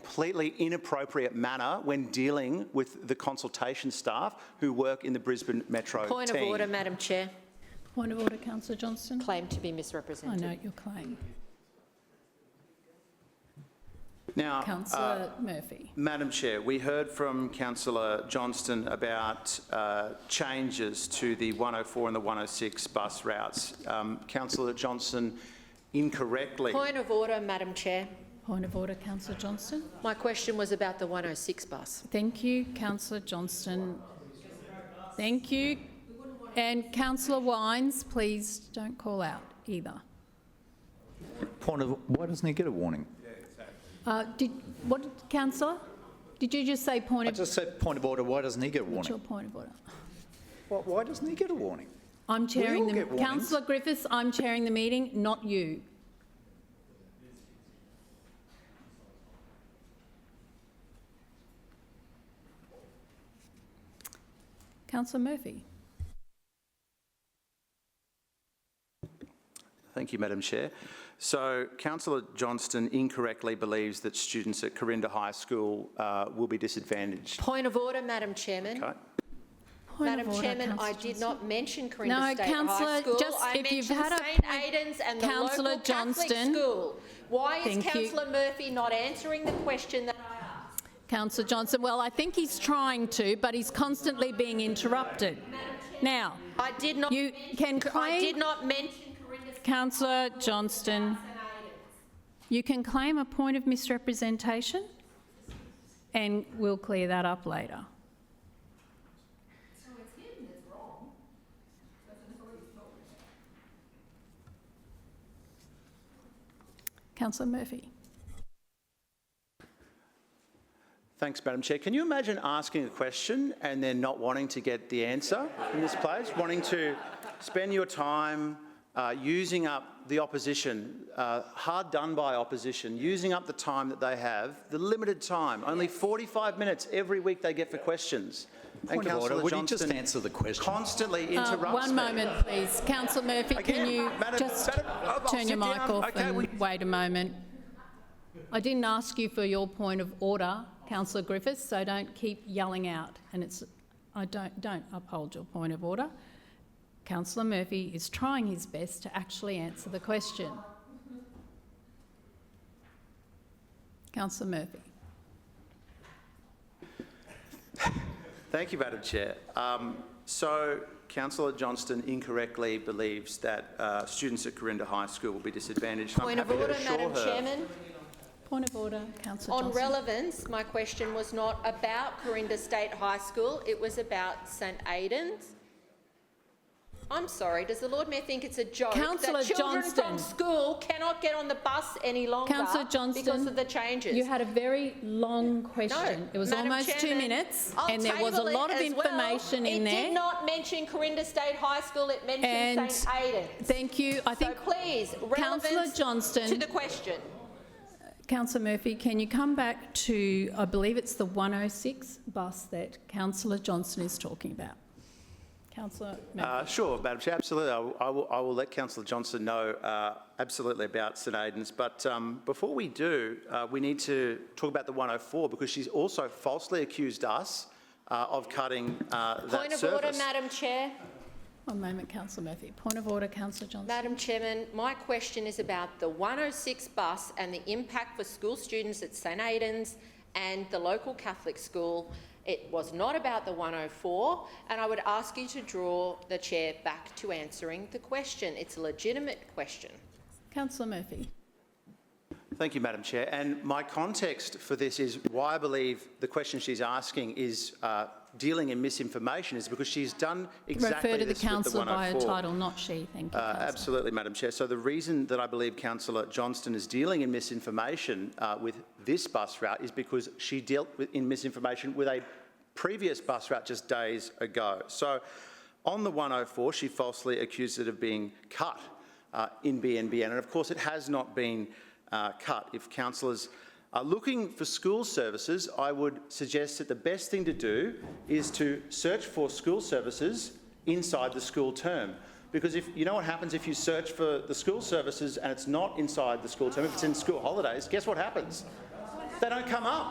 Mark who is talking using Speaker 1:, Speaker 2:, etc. Speaker 1: completely inappropriate manner when dealing with the consultation staff who work in the Brisbane Metro
Speaker 2: Point of
Speaker 1: team.
Speaker 2: order, Madam Chair.
Speaker 3: Point of order, councillor Johnston.
Speaker 2: Claim to be
Speaker 3: I
Speaker 2: misrepresented.
Speaker 3: note your claim.
Speaker 1: Now, uh,
Speaker 3: Councillor Murphy.
Speaker 1: Madam Chair, we heard from councillor Johnston about uh, changes to the 104 and the 106 bus routes. Um, Councillor Johnston incorrectly
Speaker 2: Point of order, Madam Chair.
Speaker 3: Point of order, councillor Johnston.
Speaker 2: My question was about the 106 bus.
Speaker 3: Thank you, councillor Johnston. Thank you. And councillor Wines, please don't call out either.
Speaker 4: Point of, why doesn't he get a warning?
Speaker 3: Uh, Did, what, councillor? Did you just say point
Speaker 4: I
Speaker 3: of,
Speaker 4: just said point of order, why doesn't he get a
Speaker 3: what's your
Speaker 4: warning?
Speaker 3: point of order?
Speaker 4: Why, why doesn't he get a warning?
Speaker 3: I'm chairing
Speaker 4: all
Speaker 3: the,
Speaker 4: get warnings.
Speaker 3: councillor Griffiths, I'm chairing the meeting, not you. Councillor Murphy.
Speaker 1: Thank you, Madam Chair. So councillor Johnston incorrectly believes that students at Corinda High School uh, will be disadvantaged.
Speaker 2: Point of order, Madam Chairman.
Speaker 1: Okay?
Speaker 3: Point of
Speaker 2: Madam
Speaker 3: order,
Speaker 2: Chairman, I
Speaker 3: councillor
Speaker 2: did
Speaker 3: Johnston.
Speaker 2: not mention Corinda
Speaker 3: No,
Speaker 2: State High
Speaker 3: councillor,
Speaker 2: School.
Speaker 3: just
Speaker 2: I
Speaker 3: if you've
Speaker 2: mentioned
Speaker 3: had a
Speaker 2: St
Speaker 3: point-
Speaker 2: Aidan's and the
Speaker 3: Councillor
Speaker 2: local Catholic
Speaker 3: Johnston.
Speaker 2: school. Why is
Speaker 3: Thank you.
Speaker 2: councillor Murphy not answering the question that I asked?
Speaker 3: Councillor Johnson, well, I think he's trying to, but he's constantly being interrupted. Now,
Speaker 2: I did not.
Speaker 3: You can
Speaker 2: mention- I
Speaker 3: claim-
Speaker 2: did not mention Corinda. State
Speaker 3: councillor Johnston, you can claim a point of misrepresentation and we'll clear that up later. Councillor Murphy.
Speaker 1: Thanks, Madam Chair. Can you imagine asking a question and then not wanting to get the answer in this place? Wanting to spend your time uh, using up the opposition, uh, hard done by opposition, using up the time that they have, the limited time, only 45 minutes every week they get for questions.
Speaker 4: Point of order,
Speaker 1: Councillor
Speaker 4: would you just
Speaker 1: Johnston
Speaker 4: answer the question?
Speaker 1: Constantly
Speaker 3: Uh,
Speaker 1: interrupts
Speaker 3: One
Speaker 1: me.
Speaker 3: moment, please. Councillor Murphy, can
Speaker 1: Again,
Speaker 3: you
Speaker 1: Madam-
Speaker 3: just
Speaker 1: Madam- oh, I'll
Speaker 3: turn your
Speaker 1: sit
Speaker 3: mic
Speaker 1: down.
Speaker 3: off
Speaker 1: Okay, we-
Speaker 3: and wait a moment? I didn't ask you for your point of order, councillor Griffiths, so don't keep yelling out. And it's, I don't, don't uphold your point of order. Councillor Murphy is trying his best to actually answer the question. Councillor Murphy.
Speaker 1: Thank you, Madam Chair. Um, so, Councillor Johnston incorrectly believes that uh, students at Corinda High School will be disadvantaged.
Speaker 2: Point of order, Madam Chairman.
Speaker 3: Point of order, councillor
Speaker 2: On
Speaker 3: Johnston.
Speaker 2: relevance, my question was not about Corinda State High School, it was about St Aidan's. I'm sorry, does the Lord Mayor think it's a joke
Speaker 3: Councillor
Speaker 2: that children
Speaker 3: Johnston.
Speaker 2: from school cannot get on the bus any longer
Speaker 3: Councillor Johnston.
Speaker 2: because of the changes?
Speaker 3: You had a very long question. It was
Speaker 2: Madam
Speaker 3: almost two
Speaker 2: Chairman,
Speaker 3: minutes,
Speaker 2: I'll
Speaker 3: and there was a
Speaker 2: table it
Speaker 3: lot of
Speaker 2: as well.
Speaker 3: information in
Speaker 2: It did
Speaker 3: there.
Speaker 2: not mention Corinda State High School, it mentioned
Speaker 3: And
Speaker 2: St Aidan's.
Speaker 3: thank you. I
Speaker 2: So
Speaker 3: think,
Speaker 2: please,
Speaker 3: Councillor
Speaker 2: relevance to
Speaker 3: Johnston,
Speaker 2: the question.
Speaker 3: councillor Murphy, can you come back to, I believe it's the 106 bus that councillor Johnston is talking about? Councillor Murphy.
Speaker 1: Uh, sure, Madam Chair, absolutely. I will, I will, I will let Councillor Johnston know uh, absolutely about St Aidan's. But um, before we do, uh, we need to talk about the 104 because she's also falsely accused us uh, of cutting uh, that
Speaker 2: Point of
Speaker 1: service.
Speaker 2: order, Madam Chair.
Speaker 3: One moment, councillor Murphy. Point of order, councillor Johnston.
Speaker 2: Madam Chairman, my question is about the 106 bus and the impact for school students at St Aidan's and the local Catholic school. It was not about the 104, and I would ask you to draw the chair back to answering the question. It's a legitimate question.
Speaker 3: Councillor Murphy.
Speaker 1: Thank you, Madam Chair. And my context for this is why I believe the question she's asking is uh, dealing in misinformation is because she's done exactly
Speaker 3: Refer to the
Speaker 1: this with
Speaker 3: councillor by her
Speaker 1: 104.
Speaker 3: title, not she. Thank you,
Speaker 1: Uh,
Speaker 3: councillor.
Speaker 1: Absolutely, Madam Chair. So the reason that I believe Councillor Johnston is dealing in misinformation uh, with this bus route is because she dealt with, in misinformation with a previous bus route just days ago. So on the 104, she falsely accused it of being cut uh, in BNBN, and of course it has not been uh, cut. If councillors are looking for school services, I would suggest that the best thing to do is to search for school services inside the school term. Because if, you know what happens if you search for the school services and it's not inside the school term, if it's in school holidays, guess what happens? They don't come up.